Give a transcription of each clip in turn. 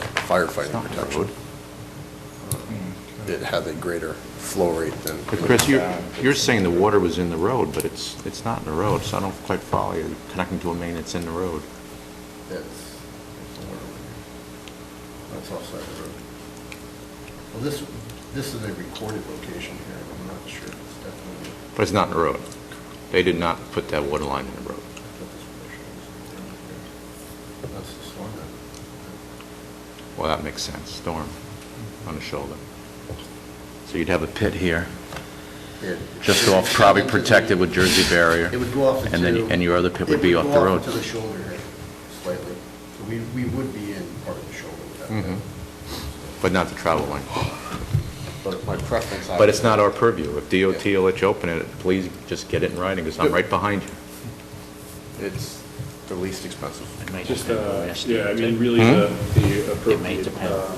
firefighting protection. It has a greater flow rate than. But Chris, you're, you're saying the water was in the road, but it's, it's not in the road, so I don't quite follow you, connecting to a main that's in the road. That's- That's offside of the road. Well, this, this is a recorded location here, I'm not sure it's definitely. But it's not in the road. They did not put that water line in the road. I thought this picture was down here. That's the storm then. Well, that makes sense, storm on the shoulder. So you'd have a pit here, It- just off, probably protected with Jersey barrier. It would go off into... And then, and your other pit would be off the It would road. go off into the shoulder here slightly. So we, we would be in part of the shoulder with that. Mhm. pit. Mm-hmm. But not the travel line. But my preference... But it's not our purview. If DOT Yeah. will let you open it, please just get it in writing, because I'm right behind you. It's the least expensive. It might Just, depend on uh, the estimate, yeah, I too. mean, really Hmm? the the appropriate, depend. uh,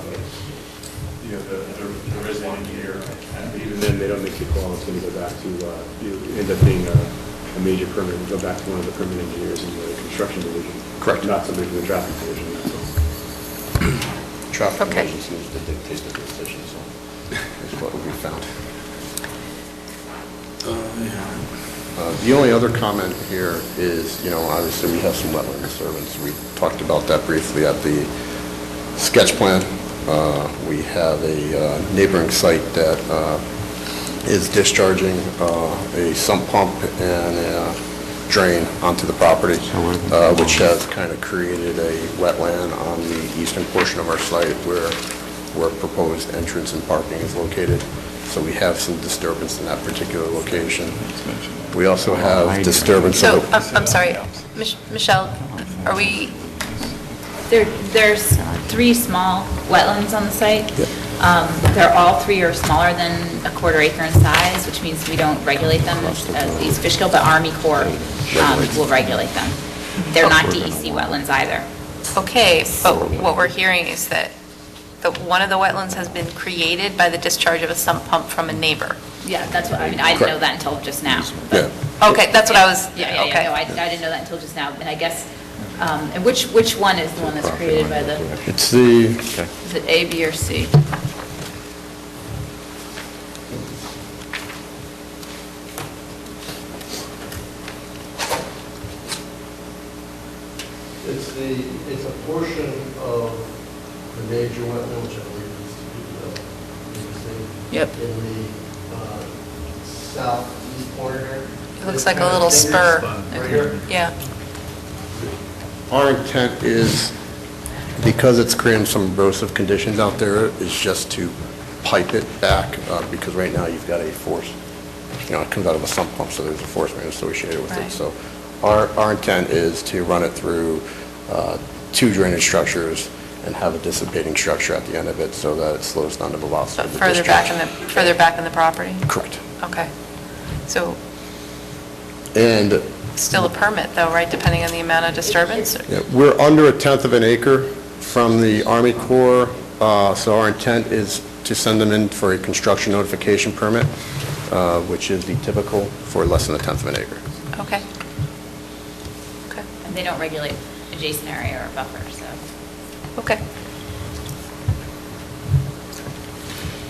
you know, the- the- there is one here, and even then, they don't make you call, it's going to go back to, uh, you end up being a a major permit, go back to one of the permit engineers in the construction division. Correct. Not somebody from the traffic division, that's all. Traffic Okay. conditions seems to dictate the decision, so that's what we found. Uh, The only other comment here is, you know, obviously, we have some wetland disturbance. We talked about that briefly at the sketch plan. Uh, We have a uh, neighboring site that uh, is discharging uh, a sump pump and a drain onto the property, uh, which has kind of created a wetland on the eastern portion of our site where, where proposed entrance and parking is located. So we have some disturbance in that particular location. We also have disturbance So, of... the- I'm I'm sorry, Mich- Michelle, are we, There, there's three small wetlands on the site. Yeah. Um, They're all three are smaller than a quarter acre in size, which means we don't regulate them as these fish kill, but Army Corps um, will regulate them. They're not DEC wetlands either. okay, but what we're hearing is that the, one of the wetlands has been created by the discharge of a sump pump from a neighbor. Yeah, that's what, I mean, I didn't know that until just now. but- uh, Yeah. Okay, that's what I was, Yeah, yeah, yeah, no, I okay. I didn't know that until just now, and I guess, um, and which, which one is the one that's created by the, It's the... is it A, B, or C? It's the, it's a portion of the major wetland, which I believe is, uh, Yep. in the uh, southeast corner. It looks like a little spur. Right here. Yeah. Our intent is, because it's creating some erosive conditions out there, is just to pipe it back, uh, because right now you've got a force, you know, it comes out of a sump pump, so there's a force main associated with it. Right. So our, our intent is to run it through uh, two drainage structures and have a dissipating structure at the end of it so that it slows down the velocity But of the further back in the, discharge. further back in the property? Correct. Okay. So And still a permit though, right, depending on the amount of disturbance? Yeah, We're under a tenth of an acre from the Army Corps, uh, so our intent is to send them in for a construction notification permit, uh, which is the typical for less than a tenth of an acre. Okay. Okay, And they don't regulate adjacent area or buffer, so. okay.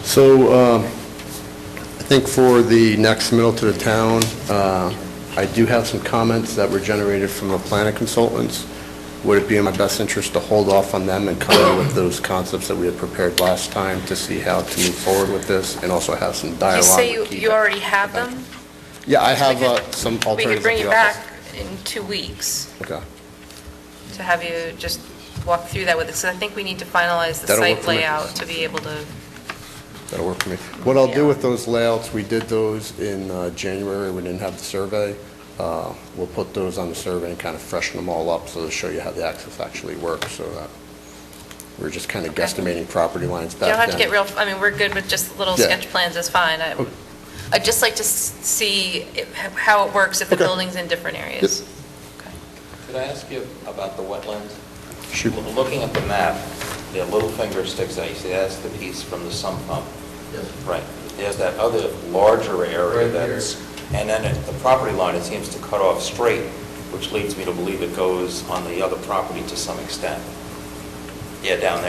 So um, I think for the next submittal to the town, uh, I do have some comments that were generated from the planning consultants. Would it be in my best interest to hold off on them and come in with those concepts that we had prepared last time to see how to move forward with this and also have some dialogue? You say you, with Keith? you already have them? Yeah, I have We could- uh, some alternatives. We could bring at you the office. back in two weeks. Okay. to have you just walk through that with us, 'cause I think we need to finalize the That'll work site for me. layout to be able to, That'll work for me. What I'll do Yeah. with those layouts, we did those in uh, January, we didn't have the survey. Uh, We'll put those on the survey and kind of freshen them all up, so to show you how the access actually works, so that we're just kind of Okay. guesstimating property lines you back then. don't have to get real, I mean, we're good with just little Yeah. sketch plans, is fine. I- Okay. I'd just like to s- see it- how it works if the Okay. building's in different areas. Okay. Could I ask you about the wetlands? Shoot. Lo- Looking at the map, the little finger sticks out, you see that's the piece from the sump pump. Right. There's that other larger area that's, and then at the property line, it seems to cut off straight, which leads me to believe it goes on the other property to some extent. Yeah, down there.